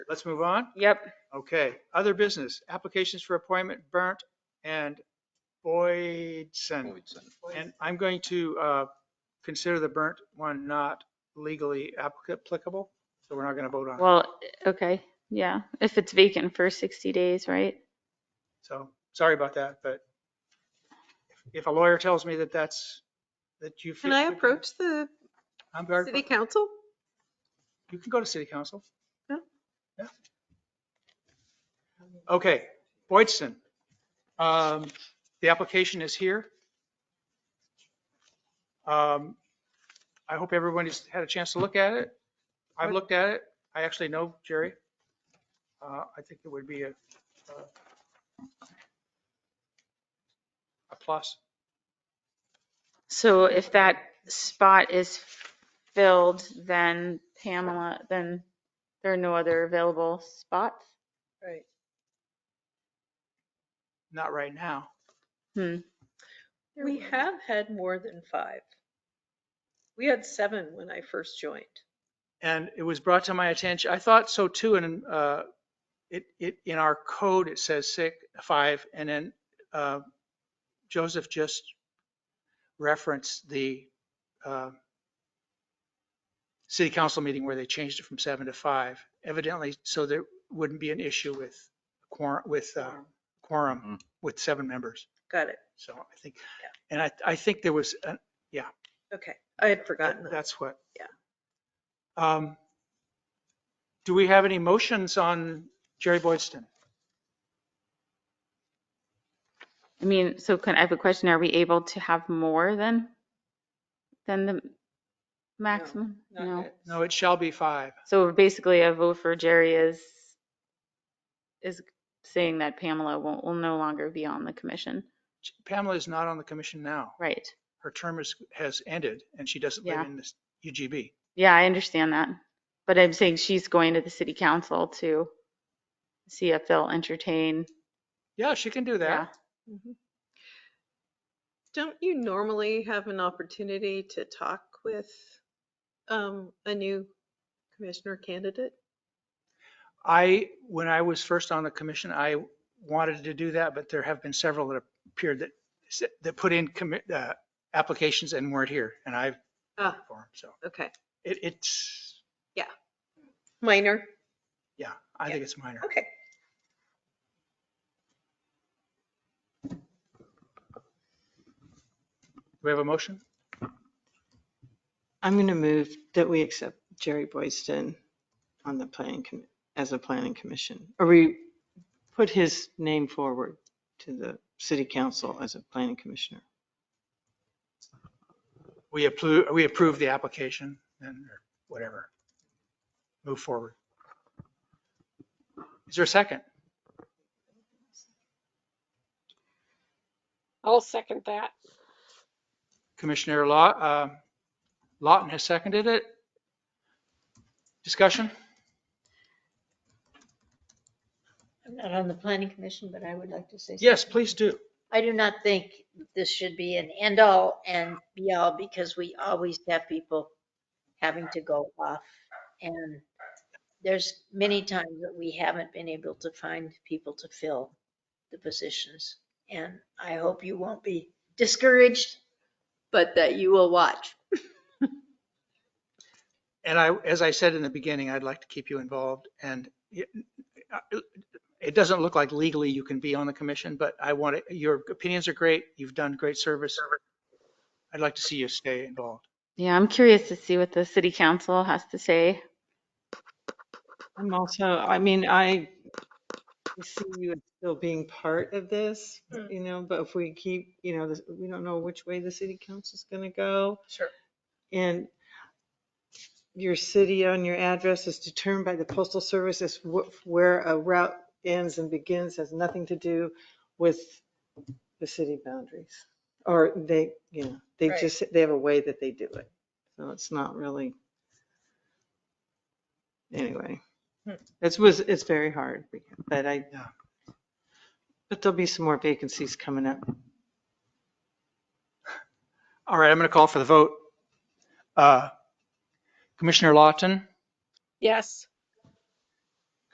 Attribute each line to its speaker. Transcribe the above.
Speaker 1: Let's move on.
Speaker 2: Yep.
Speaker 1: Okay, other business, applications for appointment, Burnt and Boydson. And I'm going to uh, consider the Burnt one not legally applicable, so we're not going to vote on it.
Speaker 2: Well, okay. Yeah. If it's vacant for 60 days, right?
Speaker 1: So, sorry about that, but if- if a lawyer tells me that that's, that you.
Speaker 3: Can I approach the
Speaker 1: I'm very,
Speaker 3: city council?
Speaker 1: you can go to city council.
Speaker 3: Yeah.
Speaker 1: Yeah. Okay, Boydson. Um, The application is here. Um, I hope everybody's had a chance to look at it. I've looked at it. I actually know Jerry. Uh, I think it would be a, a- a plus.
Speaker 2: So if that spot is filled, then Pamela, then there are no other available spots?
Speaker 3: Right.
Speaker 1: Not right now.
Speaker 2: Hmm.
Speaker 3: We have had more than five. We had seven when I first joined.
Speaker 1: And it was brought to my attention, I thought so too, and uh, it, it, in our code, it says six, five, and then uh, Joseph just referenced the uh, city council meeting where they changed it from seven to five, evidently, so there wouldn't be an issue with quorum, with uh, quorum, with seven members.
Speaker 3: Got it.
Speaker 1: So I think, and I, I think there was, an-
Speaker 3: Okay. I had forgotten that.
Speaker 1: that's what.
Speaker 3: Yeah.
Speaker 1: Um, Do we have any motions on Jerry Boydston?
Speaker 2: I mean, so can, I have a question. Are we able to have more than, than the maximum? No.
Speaker 1: No, it shall be five.
Speaker 2: So basically a vote for Jerry is, is saying that Pamela will, will no longer be on the commission.
Speaker 1: Pamela is not on the commission now.
Speaker 2: Right.
Speaker 1: Her term is, has ended and she doesn't live
Speaker 2: Yeah.
Speaker 1: in this UGB.
Speaker 2: Yeah, I understand that. But I'm saying she's going to the city council to see if they'll entertain.
Speaker 1: Yeah, she can do
Speaker 2: Yeah.
Speaker 1: that.
Speaker 3: Mhm. Don't you normally have an opportunity to talk with um, a new commissioner candidate?
Speaker 1: I, when I was first on the commission, I wanted to do that, but there have been several that appeared that, that put in commit, uh, applications and weren't here and I've,
Speaker 3: Ah,
Speaker 1: for 'em, so
Speaker 3: okay.
Speaker 1: it, it's,
Speaker 3: Minor.
Speaker 1: yeah, I
Speaker 3: Yeah.
Speaker 1: think it's minor.
Speaker 3: Okay.
Speaker 1: Do we have a motion?
Speaker 4: I'm going to move that we accept Jerry Boyston on the planning, commi- as a planning commission. Or we put his name forward to the city council as a planning commissioner.
Speaker 1: We approve, we approve the application and or whatever. Move forward. Is there a second?
Speaker 5: I'll second that.
Speaker 1: Commissioner Law, um, Lawton has seconded it. Discussion?
Speaker 6: I'm not on the planning commission, but I would like to say.
Speaker 1: Yes,
Speaker 6: something.
Speaker 1: please do.
Speaker 6: I do not think this should be an end all and be all because we always have people having to go off. And there's many times that we haven't been able to find people to fill the positions. And I hope you won't be discouraged, but that you will watch.
Speaker 1: And I, as I said in the beginning, I'd like to keep you involved and it, it doesn't look like legally you can be on the commission, but I want to, your opinions are great. You've done great service. I'd like to see you stay involved.
Speaker 2: Yeah, I'm curious to see what the city council has to say.
Speaker 4: I'm also, I mean, I see you as still being part of this,
Speaker 3: Hmm.
Speaker 4: you know, but if we keep, you know, this- we don't know which way the city council's going to go.
Speaker 3: Sure.
Speaker 4: And your city on your address is determined by the postal service as wh- where a route ends and begins, has nothing to do with the city boundaries. Or they, you know, they
Speaker 3: Right.
Speaker 4: just, they have a way that they do it. So it's not really. Anyway,
Speaker 3: Hmm.
Speaker 4: it was, it's very hard, but I,
Speaker 1: Yeah.
Speaker 4: but there'll be some more vacancies coming up.
Speaker 1: All right, I'm going to call for the vote. Uh, Commissioner Lawton,
Speaker 5: Yes,